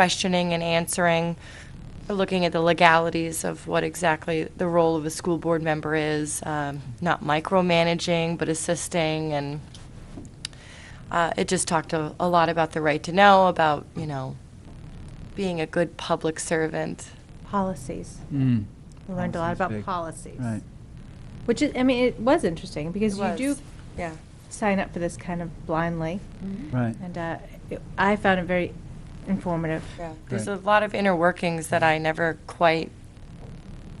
questioning and answering, looking at the legalities of what exactly the role of a school board member is, um, not micromanaging, but assisting, and uh, it just talked a a lot about the right to know, about, you know, being a good public servant. Policies. Mm, We learned a lot Policies, about big. policies. right. Which is, I mean, it was interesting because you It do was, Yeah. sign up for this kind of blindly. Right. And uh, it- I found it very informative. Yeah, there's a Right. lot of inner workings that I never quite,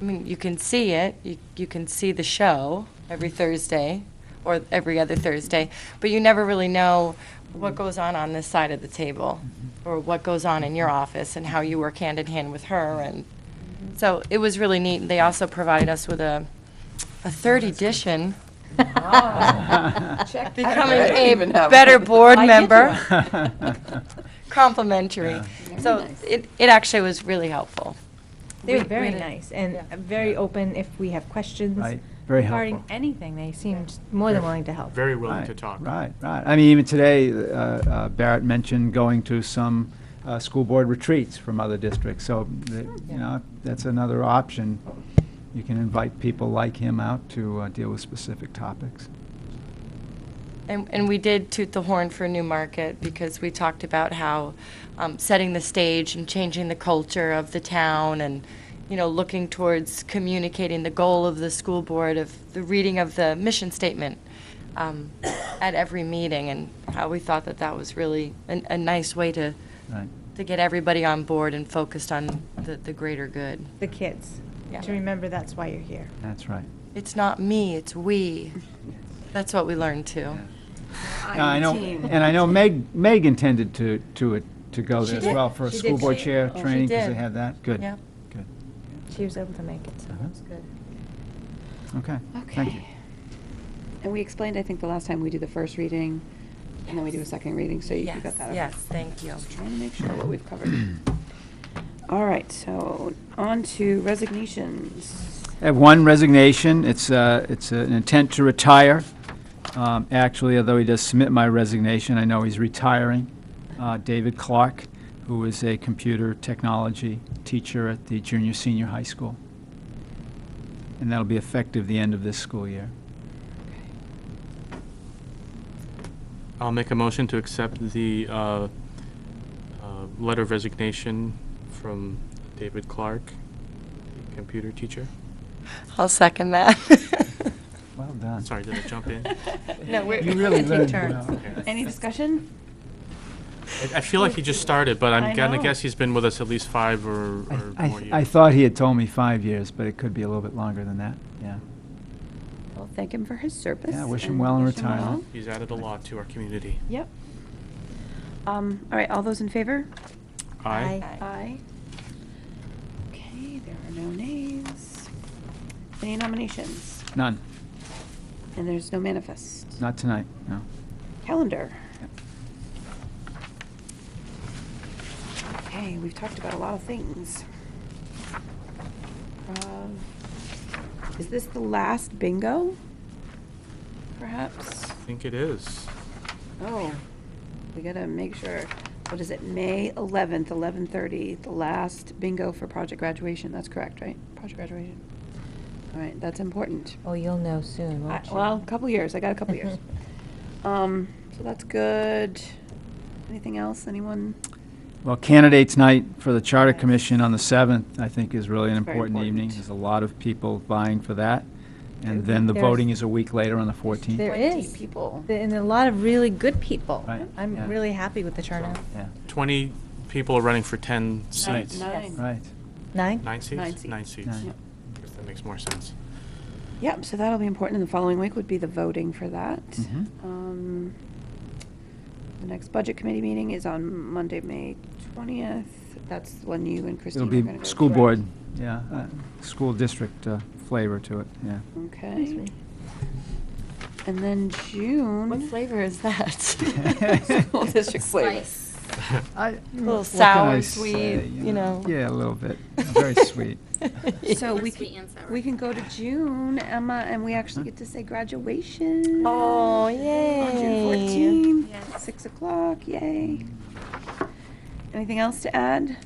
I mean, you can see it, you, you can see the show every Thursday or every other Thursday, but you never really know what goes on on this side of the table Oh. or what goes on in your office and how you work hand in hand with her. And so it was really neat. And They also provided us with a, a third edition, Ah. becoming a better board member, complimentary. So it, it actually was really helpful. They We- were we very did- nice and yeah. very open if we have questions. Right, very Regarding helpful. anything, they seemed more than willing to help. Very willing Right, to talk. Right, right. I mean, even today, uh, uh, Barrett mentioned going to some uh, school board retreats from other districts. So, the- you know, that's another option. You can invite people like him out to uh, deal with specific topics. And, and we did toot the horn for New Market because we talked about how um, setting the stage and changing the culture of the town and, you know, looking towards communicating the goal of the school board of the reading of the mission statement um, at every meeting and how we thought that that was really a, a nice way to, Right, to get everybody on board and focused on the, the greater good. The kids, Yeah. to remember that's why you're here. that's right. It's not me, it's we. That's what we learned too. Now, I know, and I know Meg, Meg intended to, to, to go She there as did. well for a She did. school board She- chair she training, because they did. have that. Good. Yeah. Good. She was able to make it, so Uh-huh. that's good. Okay, thank you. Okay. And we explained, I think, the last time we do the first reading, and then we do a second reading, so you you got that. okay. Yes, thank you. Just trying to make sure what we've covered. All right, so on to resignations. I have one resignation. It's, uh, it's an intent to retire. Um, Actually, although he does submit my resignation, I know he's retiring. Uh, David Clark, who is a computer technology teacher at the junior, senior high school. And that'll be effective the end of this school year. I'll make a motion to accept the uh, uh, letter of resignation from David Clark, the computer teacher. I'll second that. Well done. Sorry, did I jump in? I No, we're. You really Take learned turns. well. Any discussion? I feel like he just started, but I I'm gonna know. guess he's been with us at least five or I- or I, more I years. thought he had told me five years, but it could be a little bit longer than that, yeah. Well, thank him for his service. Yeah, wish him and well in wish him retirement. well. He's added a lot to our community. Yep. Um, All right, all those in favor? Aye. Aye. Aye. Okay, there are no nays. Any nominations? None, And there's no manifest. not tonight, no. Calendar. Yep. Okay, we've talked about a lot of things. Um, Is this the last bingo? Perhaps? I think it is. Oh, we gotta make sure. What is it, May 11th, 11:30, the last bingo for project graduation? That's correct, right? Project graduation. All right, that's important. Oh, you'll know soon, I- won't you? Well, a couple years, I got a couple years. Um, so that's good. Anything else, anyone? Well, candidates' night for the Charter Right. Commission on the 7th, I think, is really an It's very important evening. important. There's a lot of people vying for that. Ooh. And then the There's- voting is a week later on the 14th. There 20 is. people. The- And a lot of really good people. Right, yeah. I'm really happy with the turnout. Yeah, Twenty people are running for ten Nine. seats. Nine. right. Nine? Nine seats? Nine seats. Nine seats. Nine. If that makes more sense. Yep, so that'll be important. And the following week would be the voting for that. Mhm. Um, The next budget committee meeting is on Monday, May 20th. That's when you and Christine It'll are be gonna go. school correct? board, yeah, uh, school district uh, flavor to it, yeah. Okay. And then June. What flavor is that? School district flavor. A A little sour, sweet, you know. mm. Yeah, a little bit, very sweet. So we sweet can, and sour. we can go to June, Emma, and we actually get to say graduation. Oh, On June yay. fourteenth, six o'clock, yay. Anything else to add?